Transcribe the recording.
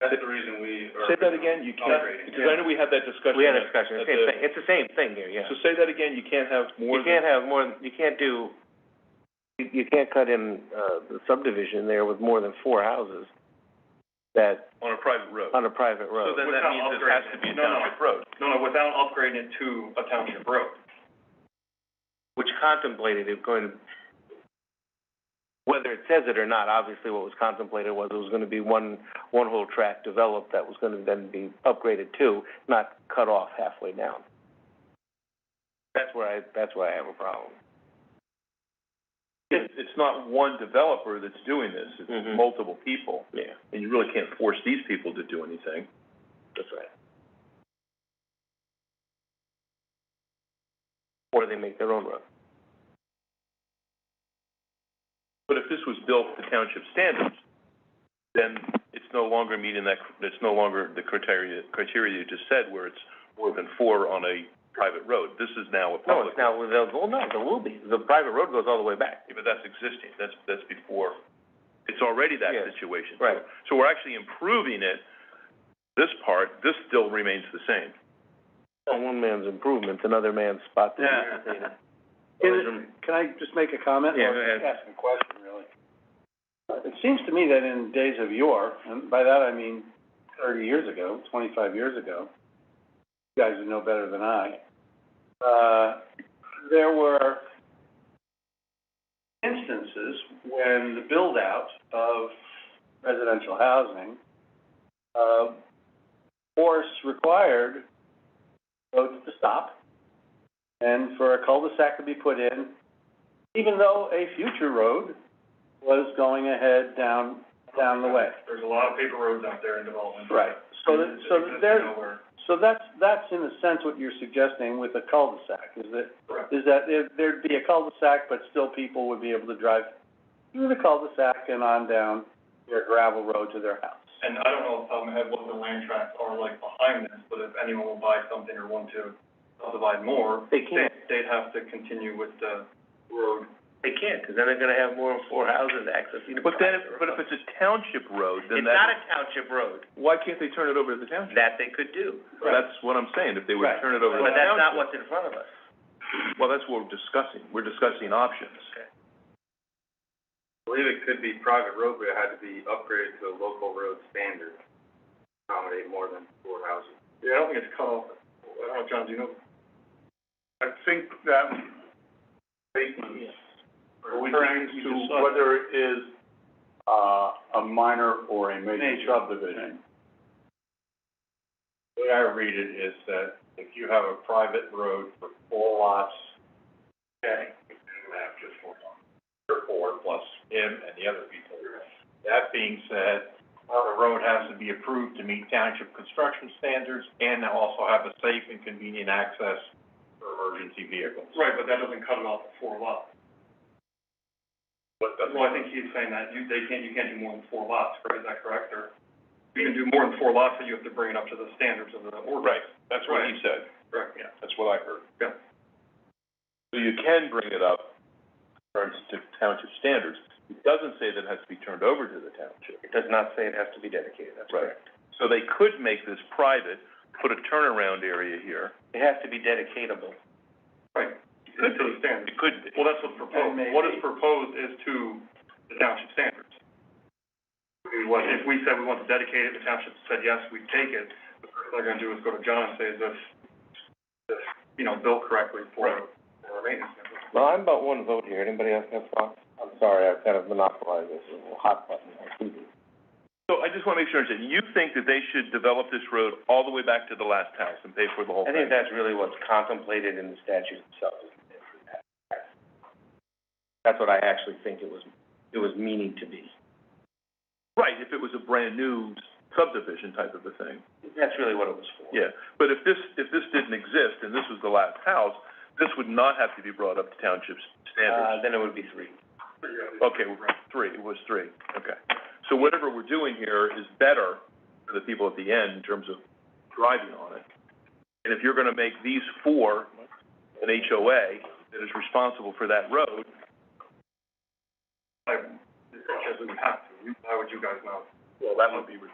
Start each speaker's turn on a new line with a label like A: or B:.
A: That's the reason we are.
B: Say that again, you can't,
A: Upgrading,
B: because I know we had that discussion.
C: We had a
B: at- at
C: discussion, it's the same
B: the-
C: thing, it's the same thing here, yeah.
B: So say that again, you can't have more
C: You
B: than.
C: can't have more, than- you can't do, you, you can't cut in, uh, the subdivision there with more than four houses that,
B: On a private road.
C: on a private road.
A: then that means it has to be a township
B: road.
A: No, no, without upgrading it to a township road.
C: Which contemplated it going, whether it says it or not, obviously what was contemplated was it was gonna be one, one whole tract developed that was gonna then be upgraded to, not cut off halfway down. That's where I, that's where I have a problem.
B: It's, it's not one developer that's doing this,
C: Mhm.
B: it's multiple people,
C: Yeah,
B: and you really can't force these people to do anything.
C: that's right. Or they make their own road.
B: But if this was built to township standards, then it's no longer meeting that, it's no longer the criteria, criteria you just said, where it's more than four on a private road. This is now a
C: No,
B: public.
C: it's now, they'll, well, no, there will be, the private road goes all the way back.
B: Yeah, but that's existing, that's, that's before, it's already that
C: Yeah,
B: situation.
C: right.
B: So we're actually improving it, this part, this still remains the same.
C: On one man's improvement, another man's spot to be
A: Yeah.
C: irrigated.
D: Can can I just make a comment?
C: Yeah,
D: or
C: go ahead.
D: just Ask a question, really. Uh, It seems to me that in days of yore, and by that I mean thirty years ago, twenty-five years ago, you guys would know better than I, uh, there were instances when the build-out of residential housing, uh, force required roads to stop and for a cul-de-sac to be put in, even though a future road was going ahead down, down the way.
A: There's a lot of paper roads out there in development.
D: Right. So that, so that there,
A: Nowhere.
D: so that's, that's in a sense what you're suggesting with a cul-de-sac, is that,
A: Correct.
D: is that there- there'd be a cul-de-sac, but still people would be able to drive through the cul-de-sac and on down their gravel road to their house.
A: And I don't know off the top of my head what the land tracts are like behind this, but if anyone will buy something or want to subdivide more,
C: They
A: they,
C: can't,
A: they'd have to continue with the road.
C: they can't, 'cause then they're gonna have more than four houses accessing the
B: But then,
C: private
B: if- but if
C: road.
B: it's a township road, then
C: It's not
B: that,
C: a township road,
B: why can't they turn it over to the township?
C: that they could do,
B: That's what I'm saying, if they would
D: Right.
B: turn it over to the
C: but that's not
B: township.
C: what's in front of us.
B: Well, that's what we're discussing, we're discussing options.
A: I believe it could be private road, but it had to be upgraded to a local road standard, accommodate more than four houses. Yeah, I don't think it's cut off, I don't know, John, do you know? I think that statement
E: refers to whether it is, uh, a minor or a major
D: Major,
E: subdivision. The way I read it is that if you have a private road for four lots, okay, you can have just four lots, or four plus him and the other people. That being said, the road has to be approved to meet township construction standards and also have a safe and convenient access for emergency vehicles.
A: Right, but that doesn't cut it off at four lots.
E: But that's-
A: Well, I think he's saying that you, they can't, you can't do more than four lots, right, is that correct, or? You can do more than four lots, but you have to bring it up to the standards of the ordinance.
B: Right, that's what he said,
A: Correct, yeah.
B: that's what I heard.
A: Yeah.
B: So you can bring it up, or to township standards, it doesn't say that it has to be turned over to the township.
C: It does not say it has to be dedicated, that's
B: Right.
C: correct.
B: So they could make this private, put a turnaround area here.
C: It has to be dedicatable.
A: Right, to the standards.
B: It could be.
A: Well, that's what's proposed.
D: And
A: What is
D: maybe-
A: proposed is to the township standards. We- What, if we said we want to dedicate it, the township said, yes, we take it, the first thing they're gonna do is go to John and say, is this, this, you know, built correctly for, for our maintenance.
C: Well, I'm about one vote here, anybody else have thoughts? I'm sorry, I've kind of monopolized this little hot button, I see this.
B: So I just wanna make sure, I understand. you think that they should develop this road all the way back to the last house and pay for the whole
C: I think
B: thing?
C: that's really what's contemplated in the statute itself. is to pay for that. That's what I actually think it was, it was meaning to be.
B: Right, if it was a brand-new subdivision type of a thing,
C: That's really what it was for.
B: yeah. But if this, if this didn't exist and this was the last house, this would not have to be brought up to township standards.
C: Uh, then it would be three.
B: Okay, three, it was three, okay. So whatever we're doing here is better for the people at the end in terms of driving on it. And if you're gonna make these four an HOA that is responsible for that road,
A: I, because we have to, why would you guys know?
B: well, that would be